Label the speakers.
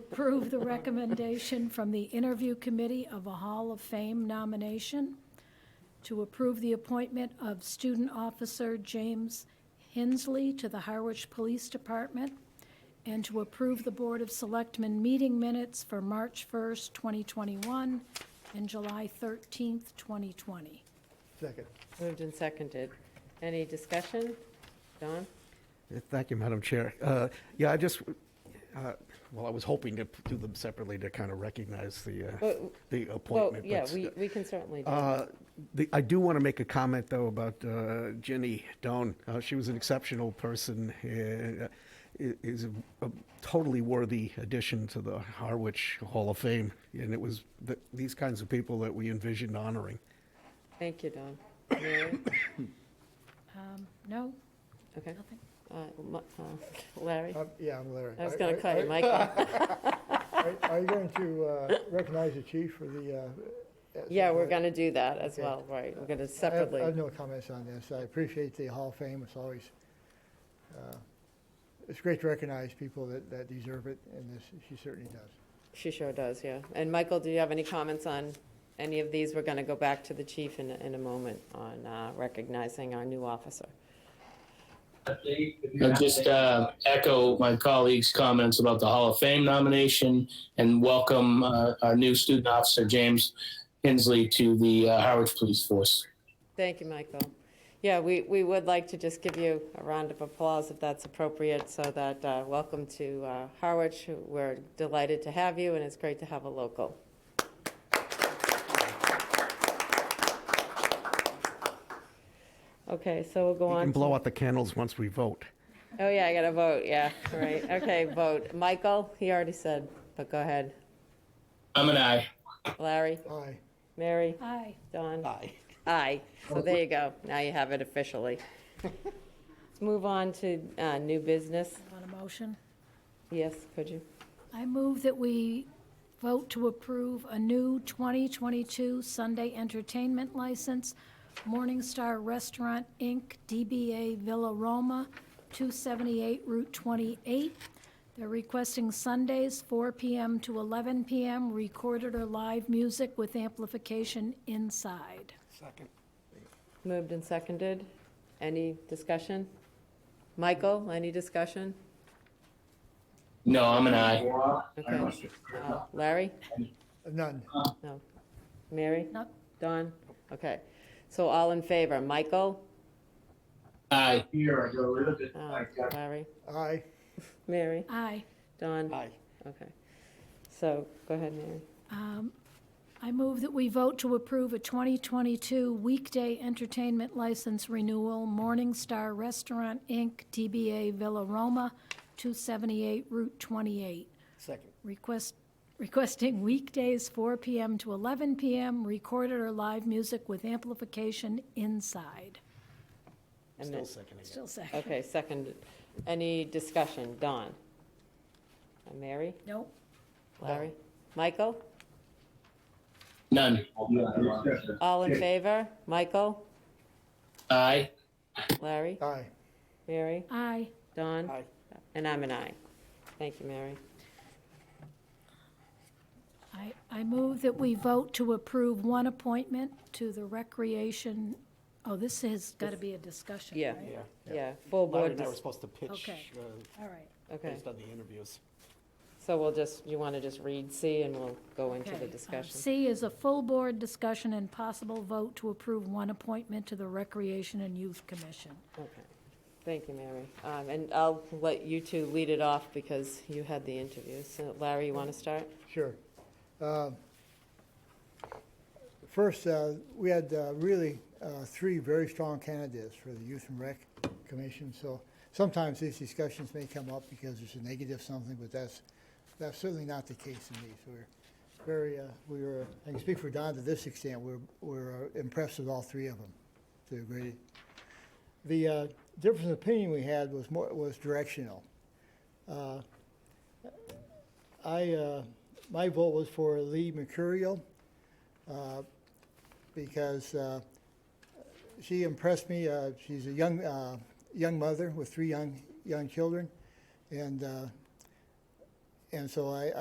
Speaker 1: approve the recommendation from the interview committee of a Hall of Fame nomination, to approve the appointment of student officer James Hensley to the Harwich Police Department, and to approve the Board of Selectmen meeting minutes for March 1st, 2021, and July 13th, 2020.
Speaker 2: Second.
Speaker 3: Moved and seconded. Any discussion? Don?
Speaker 2: Thank you, Madam Chair. Uh, Yeah, I just, uh, well, I was hoping to do them separately to kind of recognize the, uh,
Speaker 3: Well,
Speaker 2: the
Speaker 3: Well,
Speaker 2: appointment.
Speaker 3: yeah,
Speaker 2: but-
Speaker 3: we, we can certainly do.
Speaker 2: Uh, the- I do want to make a comment, though, about uh, Ginny Doan. Uh, She was an exceptional person, uh, i- is a a totally worthy addition to the Harwich Hall of Fame, and it was th- these kinds of people that we envisioned honoring.
Speaker 3: Thank you, Don. Mary?
Speaker 1: Um, No?
Speaker 3: Okay.
Speaker 1: Nothing.
Speaker 3: Uh, Ma- uh, Larry?
Speaker 4: Um, Yeah, I'm Larry.
Speaker 3: I was
Speaker 4: Are-
Speaker 3: going
Speaker 4: are-
Speaker 3: to call you
Speaker 4: are-
Speaker 3: Michael.
Speaker 4: Are are you going to uh, recognize the chief for the? uh, at some
Speaker 3: Yeah, we're
Speaker 4: point?
Speaker 3: going to do that as
Speaker 4: Okay.
Speaker 3: well, right. We're going to
Speaker 4: I have- I have
Speaker 3: separately.
Speaker 4: no comments on this. I appreciate the Hall of Fame. It's always, uh, it's great to recognize people that that deserve it, and this, she certainly does.
Speaker 3: She sure does, yeah. And Michael, do you have any comments on any of these? We're going to go back to the chief in, a- in a moment on uh, recognizing our new officer.
Speaker 5: I'll just uh, echo my colleagues' comments about the Hall of Fame nomination and welcome uh, our new student officer, James Hensley, to the uh, Harwich Police Force.
Speaker 3: Thank you, Michael. Yeah, we, we would like to just give you a round of applause if that's appropriate, so that, uh, welcome to uh, Harwich. We're delighted to have you, and it's great to have a local. Okay, so we'll go
Speaker 2: You
Speaker 3: on.
Speaker 2: can
Speaker 3: to-
Speaker 2: blow out the candles once we vote.
Speaker 3: Oh, yeah, I got to vote, yeah, right, okay, vote. Michael, he already said, but go ahead.
Speaker 5: I'm an aye.
Speaker 3: Larry,
Speaker 4: Aye.
Speaker 3: Mary,
Speaker 1: Aye.
Speaker 3: Don? Aye. Aye. So there you go. Now you have it officially. Let's move on to uh, new business.
Speaker 1: Want a motion?
Speaker 3: Yes, could you?
Speaker 1: I move that we vote to approve a new 2022 Sunday entertainment license, Morning Star Restaurant, Inc., DBA Villa Roma, 278 Route 28. They're requesting Sundays, 4 PM to 11 PM, recorded or live music with amplification inside.
Speaker 3: Moved and seconded. Any discussion? Michael, any discussion?
Speaker 5: No, I'm an aye.
Speaker 3: Okay. Uh, Larry?
Speaker 4: None.
Speaker 3: No. Mary?
Speaker 1: No.
Speaker 3: Don? Okay. So all in favor? Michael?
Speaker 5: Aye.
Speaker 3: Uh, Larry?
Speaker 4: Aye.
Speaker 3: Mary?
Speaker 1: Aye.
Speaker 3: Don? Aye. Okay. So, go ahead, Mary.
Speaker 1: I move that we vote to approve a 2022 weekday entertainment license renewal, Morning Star Restaurant, Inc., DBA Villa Roma, 278 Route 28. Second. Request, requesting weekdays 4 PM to 11 PM, recorded or live music with amplification inside.
Speaker 3: And then-
Speaker 1: Still second.
Speaker 3: Okay, second. Any discussion? Don? Uh, Mary?
Speaker 1: Nope.
Speaker 3: Larry? Michael?
Speaker 5: None.
Speaker 3: All in favor? Michael?
Speaker 5: Aye.
Speaker 3: Larry?
Speaker 4: Aye.
Speaker 3: Mary?
Speaker 1: Aye.
Speaker 3: Don? And I'm an aye. Thank you, Mary.
Speaker 1: I, I move that we vote to approve one appointment to the Recreation, oh, this has got to be a discussion,
Speaker 3: Yeah.
Speaker 1: right?
Speaker 3: Yeah, full board,
Speaker 2: I
Speaker 3: dis-
Speaker 2: was supposed to pitch
Speaker 1: Okay.
Speaker 3: uh,
Speaker 1: All right.
Speaker 3: okay.
Speaker 2: based on the interviews.
Speaker 3: So we'll just, you want to just read C and we'll go into
Speaker 1: Okay,
Speaker 3: the
Speaker 1: um,
Speaker 3: discussion?
Speaker 1: C is a full board discussion and possible vote to approve one appointment to the Recreation and Youth Commission.
Speaker 3: Okay. Thank you, Mary. Um, And I'll let you two lead it off because you had the interviews. So Larry, you want to start?
Speaker 4: Sure. Uh, First, uh, we had uh, really uh, three very strong candidates for the Youth and Rec Commission, so sometimes these discussions may come up because there's a negative something, but that's, that's certainly not the case in these. We're very, uh, we were, I can speak for Don to this extent, we're, we're uh, impressed with all three of them to a great. The uh, difference in opinion we had was more, was directional. Uh, I, uh, my vote was for Lee Mercurial, uh, because, uh, she impressed me. Uh, she's a young, uh, young mother with three young, young children. And, uh, and so I,